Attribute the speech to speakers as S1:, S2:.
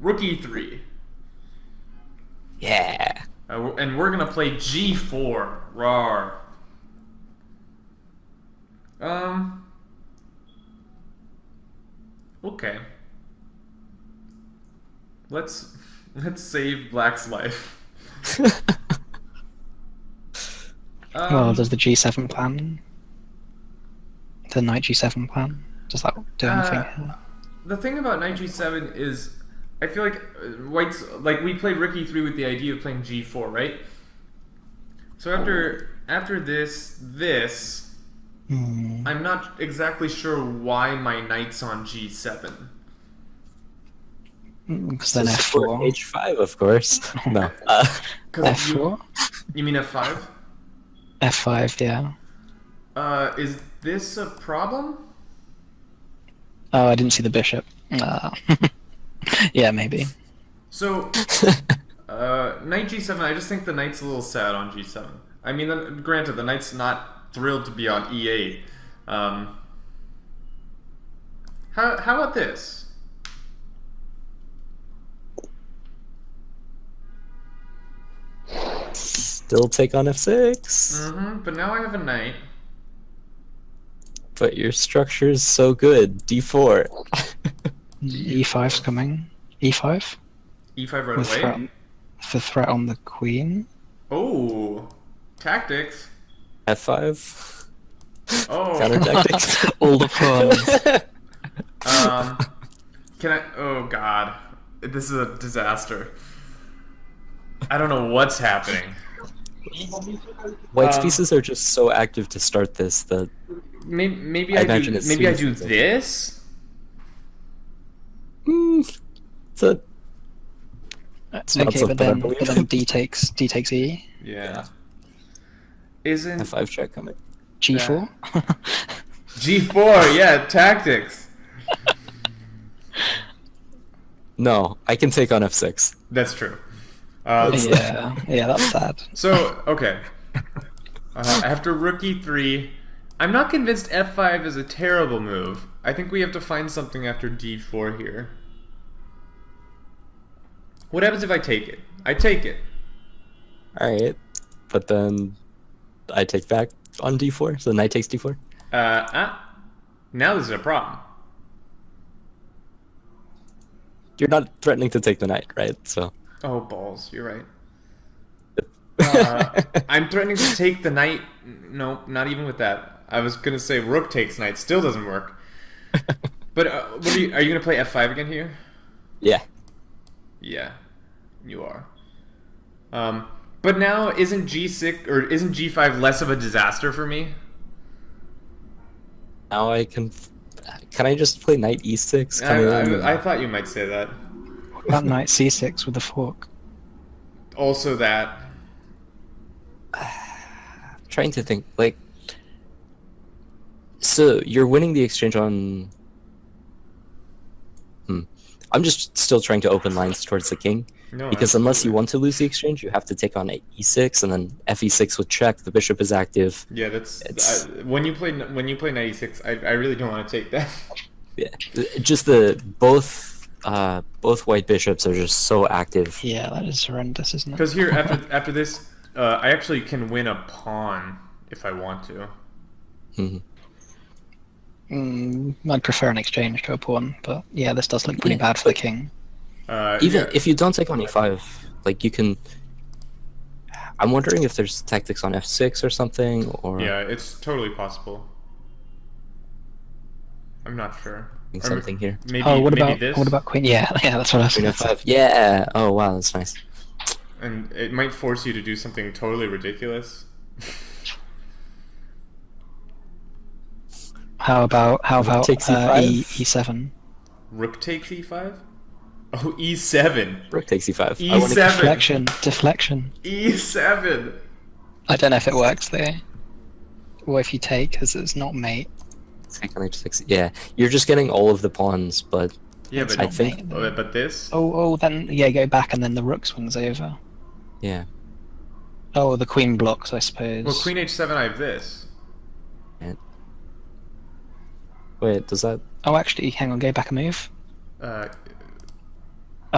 S1: Rookie three,
S2: Yeah.
S1: uh, we're- and we're gonna play G four. Rar. Um. Okay. Let's let's save Black's life. Um,
S2: well, does the G7 plan? The Knight G7 plan? Does that do anything?
S1: Uh, the thing about knight g7 is i feel like uh, whites like we played rook e3 with the idea of playing g4 right so after after this this
S2: Hmm.
S1: i'm not exactly sure why my knight's on g7
S2: Because then
S3: Just for
S2: F4.
S3: H5, of course. no. Uh,
S1: because you,
S2: F4?
S1: you mean f5
S2: F5, yeah.
S1: uh, is this a problem
S2: Oh, I didn't see the bishop.
S1: Mm.
S2: Uh, yeah, maybe.
S1: so uh, knight g7 i just think the knight's a little sad on g7 i mean the, granted the knight's not thrilled to be on e8 um, how, how about this
S3: still take on F6.
S1: hmm but now I have a knight.
S3: But your structure's so good. D4.
S2: E5's E coming. E5?
S1: E5 E right
S2: With
S1: away.
S2: threat, for threat on the queen.
S1: Oh, tactics.
S3: F5.
S1: Oh,
S3: Counter tactics.
S2: All the pawns.
S1: um, can I? Oh God, this is a disaster. I don't know what's happening.
S3: White's
S1: Um,
S3: pieces are just so active to start this that
S1: Maybe, maybe
S3: I
S1: I, do.
S3: imagine it's
S1: Maybe I do
S3: smooth.
S1: this.
S3: mm, it's a not
S2: okay, but
S3: something I
S2: then,
S3: believe
S2: but then
S3: in.
S2: D takes D takes E.
S1: Yeah. Isn't
S3: F5 check coming.
S2: G4?
S1: G4? Yeah, tactics.
S3: No, I can take on F6.
S1: That's true. Uh,
S2: yeah, yeah, that's sad.
S1: So okay, uh, after rookie three, I'm not convinced f5 is a terrible move. I think we have to find something after d4 here. What happens if I take it? I take it.
S3: Alright. But then I take back on D4, so knight takes D4.
S1: Uh, uh now this is a problem.
S3: You're not threatening to take the knight, right? So.
S1: Oh balls! You're right. Uh, I'm threatening to take the knight. No, not even with that. I was gonna say rook takes knight. Still doesn't work. But uh, what are you? Are you gonna play f5 again here?
S3: yeah.
S1: Yeah, you are. Um, but now isn't G six or isn't G five less of a disaster for me?
S3: Now I can. Can I just play knight e6?
S1: I,
S3: Coming in?
S1: I, I thought you might say that.
S2: That knight C6 with a fork.
S1: Also that.
S3: trying to think like so you're winning the exchange on hmm. i'm just still trying to open lines towards the king
S1: No,
S3: because unless you want to lose the exchange you have to take on e6 and then fe6 would check the bishop is active
S1: Yeah, that's
S3: It's-
S1: I, when you play when you play ninety six. I, I really don't want to take that.
S3: yeah just the both uh both white bishops are just so active
S2: Yeah, that is horrendous, isn't it?
S1: Because here after after this, uh, I actually can win a pawn if I want to.
S3: Mhm.
S2: Mm, I'd prefer an exchange to a pawn, but yeah, this does look pretty
S3: Yeah,
S2: bad for the king.
S1: Uh,
S3: even
S1: yeah.
S3: if you don't take on e5 like you can i'm wondering if there's tactics on f6 or something or
S1: yeah, it's totally possible. I'm not sure. Or m-
S3: something here
S1: Maybe,
S2: oh, what
S1: maybe
S2: about
S1: this?
S2: what about queen? Yeah, yeah, that's what I was
S3: Queen
S2: going
S3: F5. Yeah. Oh wow, that's nice.
S1: and it might force you to do something totally ridiculous.
S2: How about how about
S3: Take
S2: uh, e
S3: C5.
S2: E7?
S1: Rook takes e5. Oh, e7.
S3: Rook takes E5.
S1: E7.
S3: I wanna-
S2: uh, Deflection, deflection.
S1: E E7.
S2: I don't know if it works there. Or if you take, because it's not mate.
S3: Take on H6. Yeah, you're just getting all of the pawns, but
S1: Yeah, but
S3: I think.
S1: but but this.
S2: Oh, oh, then yeah, go back and then the rook swings over.
S3: Yeah.
S2: Oh, the queen blocks, I suppose.
S1: Well, queen h7. I have this.
S3: And- Wait, does that?
S2: Oh, actually, hang on, go back a move.
S1: Uh,